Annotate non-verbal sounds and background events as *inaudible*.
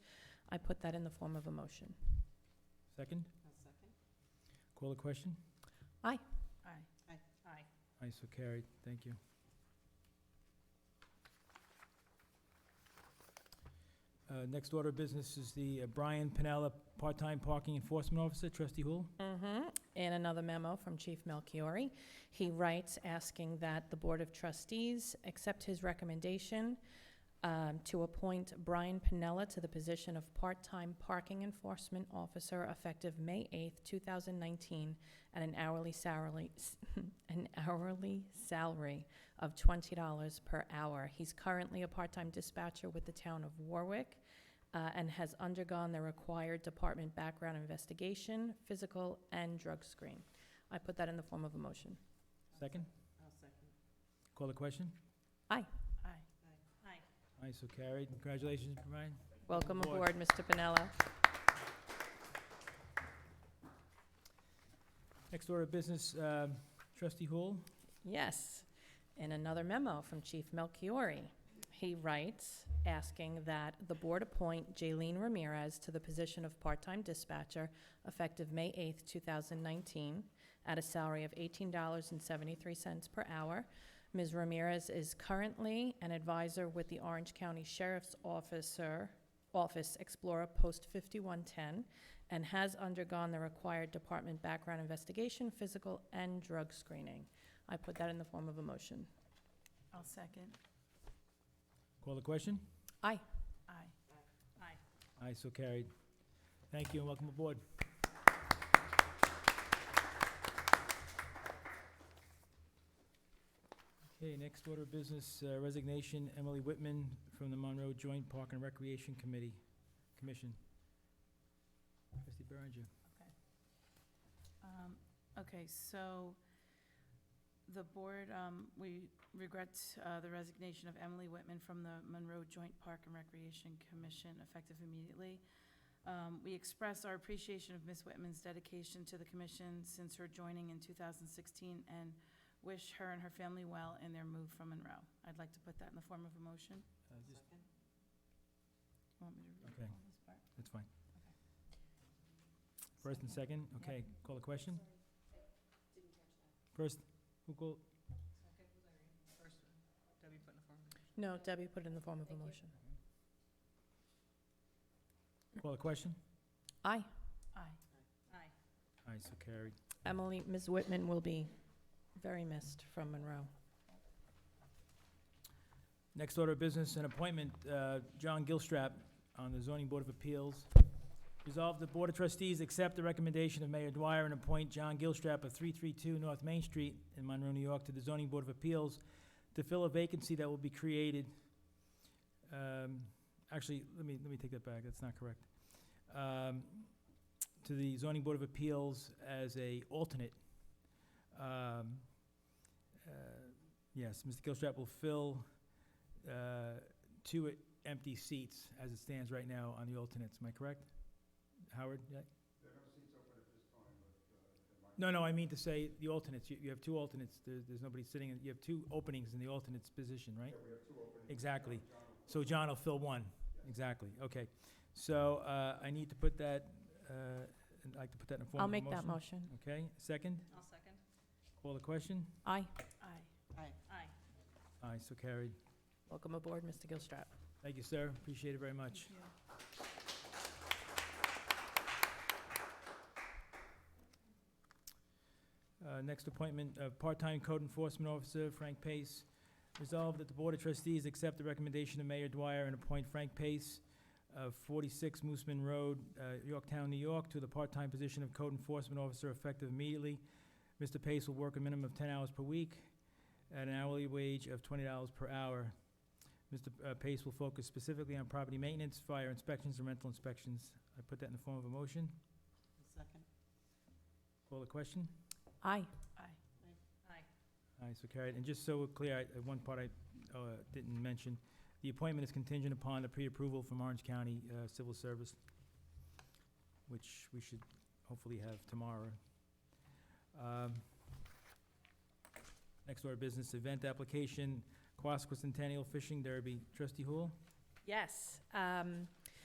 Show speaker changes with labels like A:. A: I put that in the form of a motion.
B: Second?
C: I'll second.
B: Call the question?
A: Aye.
C: Aye. Aye.
B: Aye, so carried. Thank you. Uh, Next order of business is the uh, Brian Pinella, part-time parking enforcement officer. Trustee Hul?
A: Mm-hmm. And another memo from Chief Melchiori. He writes asking that the Board of Trustees accept his recommendation um, to appoint Brian Pinella to the position of part-time parking enforcement officer effective May 8th, 2019, at an hourly salary, *laughs* an hourly salary of $20 per hour. He's currently a part-time dispatcher with the town of Warwick uh, and has undergone the required department background investigation, physical, and drug screen. I put that in the form of a motion.
B: Second?
C: I'll second.
B: Call the question?
C: Aye. Aye. Aye.
B: Aye, so carried. Congratulations, Brian.
A: Welcome
B: Aboard.
A: aboard, Mr. Pinella.
B: Next order of business, um, Trustee Hul?
A: Yes. In another memo from Chief Melchiori, he writes asking that the board appoint Jaylene Ramirez to the position of part-time dispatcher effective May 8th, 2019, at a salary of $18.73 per hour. Ms. Ramirez is currently an advisor with the Orange County Sheriff's Officer, Office Explorer Post 5110, and has undergone the required department background investigation, physical, and drug screening. I put that in the form of a motion.
C: I'll second.
B: Call the question?
C: Aye. Aye.
B: Aye, so carried. Thank you and welcome aboard. Okay, next order of business, uh, resignation, Emily Whitman from the Monroe Joint Park and Recreation Committee, Commission. Trustee Berenger.
C: Um, Okay, so the board, um, we regret uh, the resignation of Emily Whitman from the Monroe Joint Park and Recreation Commission effective immediately. Um, We express our appreciation of Ms. Whitman's dedication to the commission since her joining in 2016 and wish her and her family well in their move from Monroe. I'd like to put that in the form of a motion.
B: Uh, just-
C: Want me to read
B: Okay.
C: all this part?
B: That's fine. First and second, okay, call the question? First, who called?
A: No, Debbie put it in the form of a motion.
B: Call the question?
A: Aye.
C: Aye. Aye.
B: Aye, so carried.
A: Emily, Ms. Whitman will be very missed from Monroe.
B: Next order of business, an appointment, uh, John Gilstrap on the Zoning Board of Appeals. Resolve the Board of Trustees accept the recommendation of Mayor Dwyer and appoint John Gilstrap of 332 North Main Street in Monroe, New York, to the Zoning Board of Appeals to fill a vacancy that will be created. um, Actually, let me, let me take that back, that's not correct. Um, To the Zoning Board of Appeals as a alternate. Um, uh, Yes, Mr. Gilstrap will fill uh, two e- empty seats as it stands right now on the alternates, am I correct? Howard, yeah? There are no seats open at this time, but. uh, No, no, I mean to say, the alternates, you, you have two alternates, there's, there's nobody sitting, in- you have two openings in the alternates position, right? we have two openings. Exactly, so John will fill one, exactly, okay. So, uh, I need to put that, uh, I'd like to put that in a form
A: I'll
B: of a
A: make
B: motion.
A: that motion.
B: Okay, second,
C: I'll second.
B: call the question,
A: Aye.
C: Aye. Aye. Aye.
B: aye, so carried.
A: Welcome aboard, Mr. Gilstrap.
B: Thank you, sir, appreciate it very much. Uh, Next appointment of part-time code enforcement officer Frank Pace. Resolved that the Board of Trustees accept the recommendation of Mayor Dwyer and appoint Frank Pace of 46 Mooseman Road, uh, Yorktown, New York, to the part-time position of code enforcement officer effective immediately. Mr. Pace will work a minimum of 10 hours per week at an hourly wage of $20 per hour. Mr. P- uh, Pace will focus specifically on property maintenance, fire inspections, and rental inspections. I put that in the form of a motion.
C: Second.
B: Call the question?
A: Aye.
C: Aye. Aye.
B: Aye, so carried. And just so we're clear, I- uh, one part I uh, didn't mention, the appointment is contingent upon the pre-approval from Orange County uh, Civil Service, which we should hopefully have tomorrow. Um, Next order of business, event application, Quasicentennial Fishing Derby. Trustee Hul?
A: Yes. um,